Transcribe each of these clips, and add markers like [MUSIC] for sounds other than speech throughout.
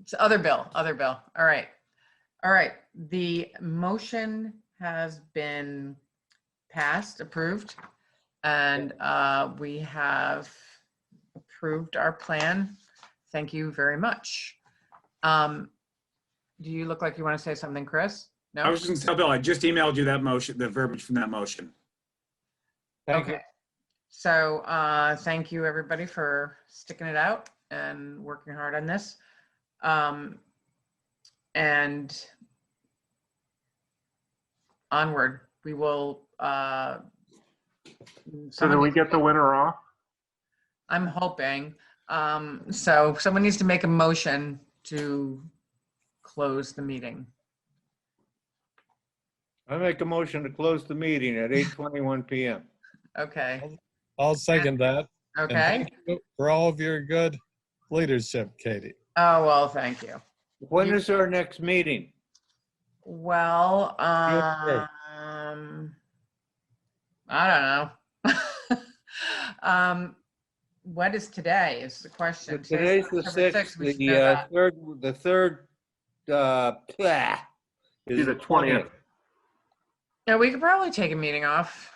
It's Other bill, other bill. All right. All right. The motion has been passed, approved. And uh, we have approved our plan. Thank you very much. Um, Do you look like you want to say something, Chris? I No? was just gonna tell Bill, I just emailed you that motion, the verbiage from that motion. Thank you. Okay. So uh, thank you, everybody, for sticking it out and working hard on this. Um, And onward, we will. uh, So then someone- we get the winner off? I'm hoping. Um, So someone needs to make a motion to close the meeting. I make a motion to close the meeting at 8:21 PM. Okay, I'll second that. And okay. thank you For all of your good leadership, Katie. Oh, well, thank you. When is our next meeting? Well, Sure. um, I don't know. [LAUGHS] um, what is today is the question. Today's the October 6th, we should the know uh, that. third, the third, uh, blah, Be is the 20th. No, we could probably take a meeting off.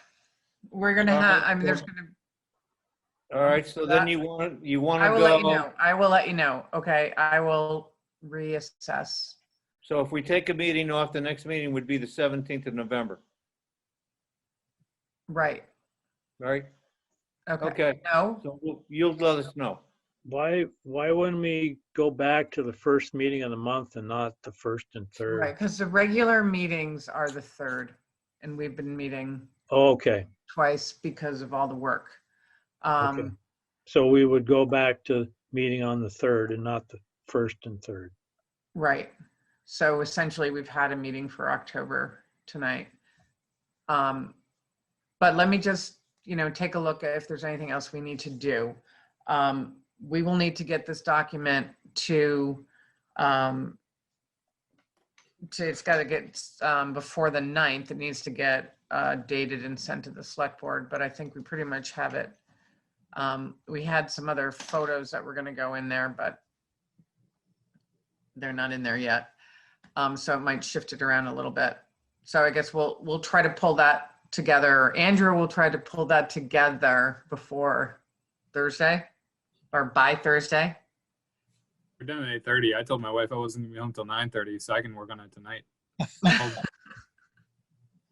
We're gonna Uh, have, I mean, there's sure. gonna, All right, so That- then you want, you want I to will let you go. know. I will let you know. Okay, I will reassess. So if we take a meeting off, the next meeting would be the 17th of November, Right, right? okay. Okay, No, so we'll- you'll let us know. Why, why wouldn't we go back to the first meeting of the month and not the first and right, third? because the regular meetings are the third and we've been meeting Oh, Okay, twice because of all the work. Okay. Um, so we would go back to meeting on the third and not the first and third. Right. So essentially, we've had a meeting for October tonight. Um, But let me just, you know, take a look at if there's anything else we need to do. Um, We will need to get this document to, um, to, it's got to get, um, before the 9th, it needs to get uh, dated and sent to the select board, but I think we pretty much have it. Um, We had some other photos that were going to go in there, but they're not in there yet. Um, so it might shift it around a little bit. So I guess we'll, we'll try to pull that together. Andrew will try to pull that together before Thursday or by Thursday. We're done at eight thirty. I told my wife I wasn't gonna be home till nine thirty, so I can work on it tonight.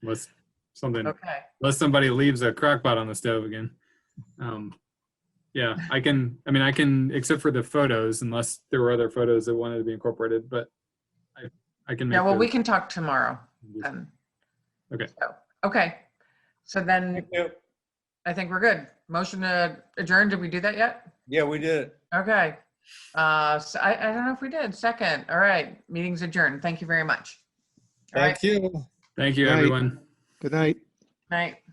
Unless something, Okay. unless somebody leaves a crock pot on the stove again. Um, yeah, I can. I mean, I can, except for the photos, unless there were other photos that wanted to be incorporated. But I, I can make. Yeah, well, those we uh, can talk tomorrow changes. then. Okay. So- Okay. So then I think we're good. Motion to adjourn. Did we do that yet? Yeah, we did it. Okay. Uh, so I, I don't know if we did. Second. All right. Meeting's adjourned. Thank you very much. All right. Thank you. Thank you, Right. everyone. Good night. Night.